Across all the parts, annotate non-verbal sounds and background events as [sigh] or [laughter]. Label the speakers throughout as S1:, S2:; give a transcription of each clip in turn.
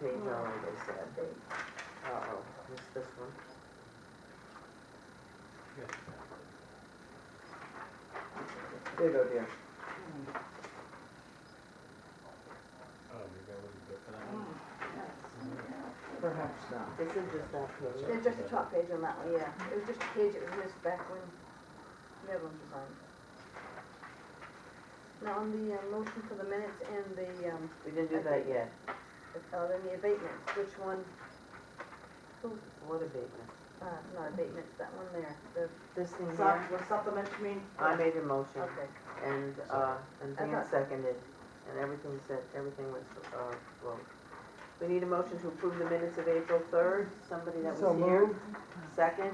S1: page only, they said, they, uh-oh, missed this one. There you go, dear. Perhaps not. This is just that page.
S2: There's just a top page on that one, yeah. It was just a page, it was missed back when Netherlands was on. Now, on the uh, motion for the minutes and the, um,
S1: We didn't do that yet.
S2: uh, then the abatements, which one,
S1: What abatement?
S2: uh, not abatements, that one there, the,
S1: This thing
S2: Sup-
S1: here?
S2: was supplement, you mean?
S1: I made a motion
S2: Okay,
S1: and, uh, and
S2: I
S1: Dan
S2: thought-
S1: seconded, and everything said, everything was, uh, well. We need a motion to approve the minutes of April third, somebody that was here. Second,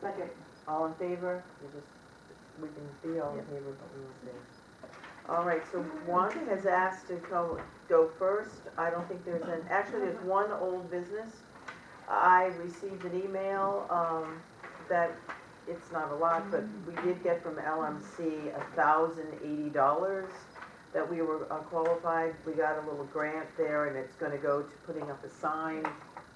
S2: second.
S1: all in favor? We just, we can be all in favor, but we won't be. All right, so one has asked to go, go first. I don't think there's an, actually, there's one old business. I received an email, um, that, it's not a lot, but we did get from LMC a thousand eighty dollars that we were uh, qualified. We got a little grant there and it's gonna go to putting up a sign,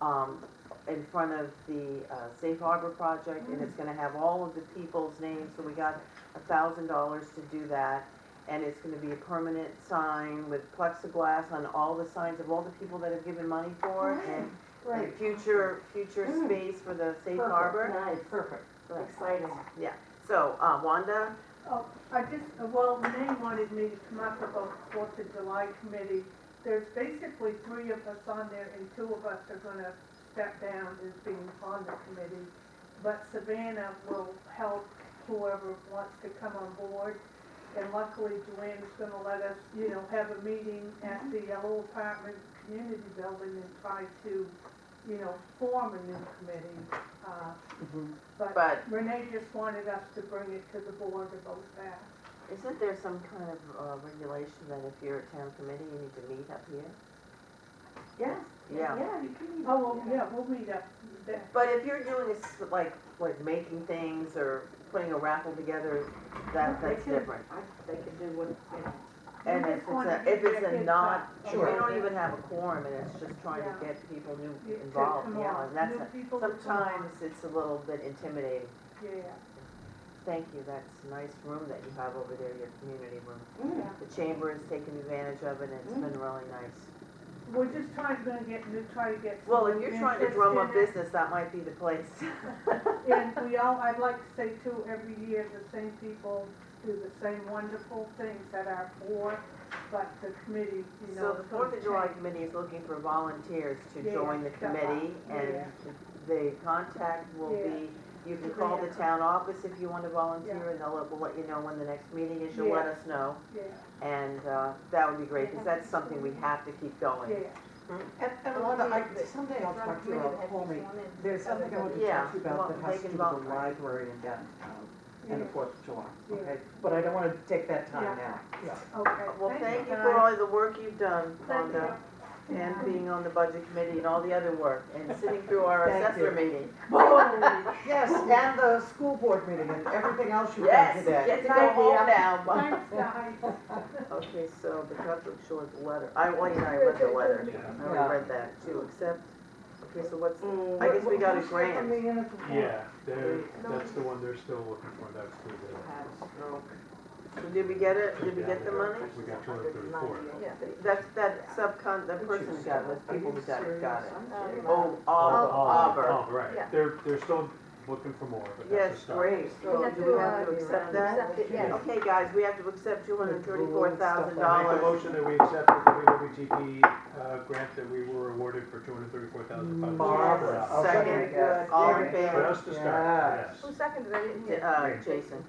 S1: um, in front of the uh, Safe Harbor project, and it's gonna have all of the people's names, so we got a thousand dollars to do that. And it's gonna be a permanent sign with plexiglass on all the signs of all the people that have given money for it, and- and future, future
S3: Mm.
S1: space for the Safe
S3: Perfect,
S1: Harbor.
S3: Nice, perfect,
S1: Right.
S3: exciting.
S1: So, uh, Wanda,
S4: Oh, I just, well, Renee wanted me to come up about Fourth of July committee. There's basically three of us on there and two of us are gonna step down as being on the committee. But Savannah will help whoever wants to come on board. And luckily Joanne's gonna let us, you know, have a meeting at the yellow apartment community building and try to, you know, form a new committee. Uh,
S1: but
S4: Renee just wanted us to bring it to the board to vote back.
S1: isn't there some kind of uh, regulation that if you're a town committee, you need to meet up here?
S3: Yes.
S1: Yeah.
S3: Yeah, you can.
S4: Oh, well, yeah, we'll meet up there.
S1: But if you're doing this, like, like making things or putting a raffle together, that,
S3: They
S1: that's
S3: can-
S1: different.
S3: I, they can do what, yeah.
S1: And
S4: We
S1: if
S4: just
S1: it's
S4: wanted
S1: a,
S4: to
S1: if
S4: get
S1: it's
S4: their
S1: a
S4: kids
S1: not,
S4: out
S1: we
S4: a little
S1: don't
S4: bit.
S1: even have a quorum and it's just trying to
S4: Yeah.
S1: get people
S4: You-
S1: new
S4: to
S1: involved,
S4: come
S1: yeah,
S4: on,
S1: and that's,
S4: new
S1: a-
S4: people to come
S1: sometimes
S4: on.
S1: it's a little bit intimidating.
S4: Yeah,
S1: Thank you, that's a nice room that you have over there, your community room.
S3: Mm.
S1: The chamber has taken advantage of it and it's
S4: Mm.
S1: been really nice.
S4: we're just trying, gonna get, new try to get. some
S1: Well, if
S4: new
S1: you're trying to
S4: interest
S1: drum
S4: in
S1: up
S4: it.
S1: business, that might be the place.
S4: [laughs] And we all, I'd like to say too, every year, the same people do the same wonderful things at our board, but the committee, you know.
S1: So the
S4: it's
S1: Fourth
S4: gonna
S1: of July
S4: change.
S1: committee is looking for volunteers to
S4: Yeah,
S1: join the
S4: yeah.
S1: committee and
S4: Yeah.
S1: the contact will be, you can call the town office if you want to volunteer and they'll, we'll let you know when the next meeting is, you'll let
S4: Yeah.
S1: us know.
S4: Yeah,
S1: And, uh, that would be great, because that's something we have to keep going.
S4: yeah.
S5: And, and
S2: Well,
S5: Wanda,
S2: the-
S5: I, someday I'll talk to you about Homey. There's something [laughs] I want to
S1: Yeah,
S5: talk to you about
S1: well,
S5: that
S1: they
S5: has to
S1: can
S5: do with the
S1: vote.
S5: library in downtown and the
S4: Yeah.
S5: Fourth of July,
S4: Yeah.
S5: okay? But I don't want to take that time now.
S4: Okay.
S1: Well, thank you for
S4: guys.
S1: all the work you've done,
S4: Thank you.
S1: Wanda, and being on the budget committee and all the other work, and sitting through our
S5: Thank
S1: assessor
S5: you.
S1: meeting.
S2: [laughs]
S4: Holy
S5: [laughs] Yes, and the school board meeting and everything else you've done
S1: Yes,
S5: today.
S1: get to go home now. Mom. [laughs]
S4: Thanks, guys.
S1: Okay, so the Catholic Shores letter, I, Wayne and I read the letter, I
S5: Yeah.
S1: already read that too, except, okay, so what's,
S3: Mm.
S1: I guess we got a
S5: Who's
S1: grant.
S5: stepping me in at the board?
S6: Yeah, they're, that's the one they're still looking for, that's the,
S1: oh. So did we get it, did we get the money?
S6: we got two hundred thirty-four.
S2: Yeah.
S1: That's, that subcon, the
S5: Did
S1: person
S5: you
S1: who got it,
S5: stop?
S1: was
S5: Are
S1: people
S5: you
S1: who got it, got it.
S5: serious? I'm
S2: Oh,
S5: serious.
S1: Oh,
S6: Oh,
S1: Auburn, Auburn,
S6: Oh, right,
S2: Yeah.
S6: they're, they're still looking for more, but that's
S1: yes,
S6: a start.
S1: great,
S2: We
S1: so
S2: have
S1: do
S2: to,
S1: we have
S2: uh,
S1: to accept that?
S2: Accept it, yes.
S1: Okay, guys, we have to accept two hundred thirty-four thousand
S6: I make
S1: dollars.
S6: the motion that we accept the WWTP, uh, grant that we were awarded for two hundred thirty-four thousand five hundred.
S5: Marvelous.
S6: dollars.
S1: Second,
S5: Mm.
S1: uh,
S5: Yes.
S1: all in
S5: Yes.
S6: For
S1: favor?
S6: us to start,
S5: Yes.
S6: yes.
S2: Who seconded it? I didn't hear.
S1: Uh, Jason,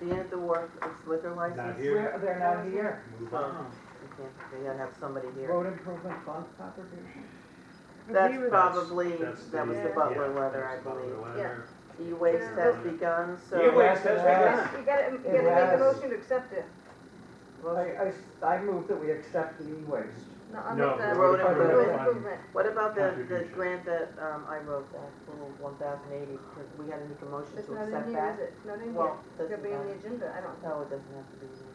S1: the end of the war, it's liquor license?
S6: Not here,
S5: They're they're not here.
S6: move
S1: Oh,
S6: on.
S1: we can't, we gotta have somebody here.
S5: Road improvement fund contribution.
S1: That's
S4: Agree with-
S1: probably,
S6: That's
S1: that was the
S4: yeah,
S1: Butler
S6: yeah,
S1: letter, I
S6: that's the Butler
S1: believe.
S6: letter. E
S1: E-waste has begun, so,
S6: E-waste.
S2: Yes, You gotta, you gotta make
S5: It
S2: a
S5: was.
S2: motion to accept it.
S1: uh,
S5: I, I, s- I move that we accept the e-waste.
S2: No, I'll make
S6: No,
S2: the
S1: road
S2: road
S1: improvement.
S2: uh, improvement.
S1: what about the, the
S6: Contribution.
S1: grant that, um, I wrote, that little one thousand eighty, we gotta make a motion
S2: It's
S1: to
S2: not in
S1: accept
S2: here, is
S1: that?
S2: it? Not in here.
S1: Well,
S2: Could
S1: doesn't
S2: be on the
S1: matter.
S2: agenda, I don't.
S1: No, it doesn't have to be. in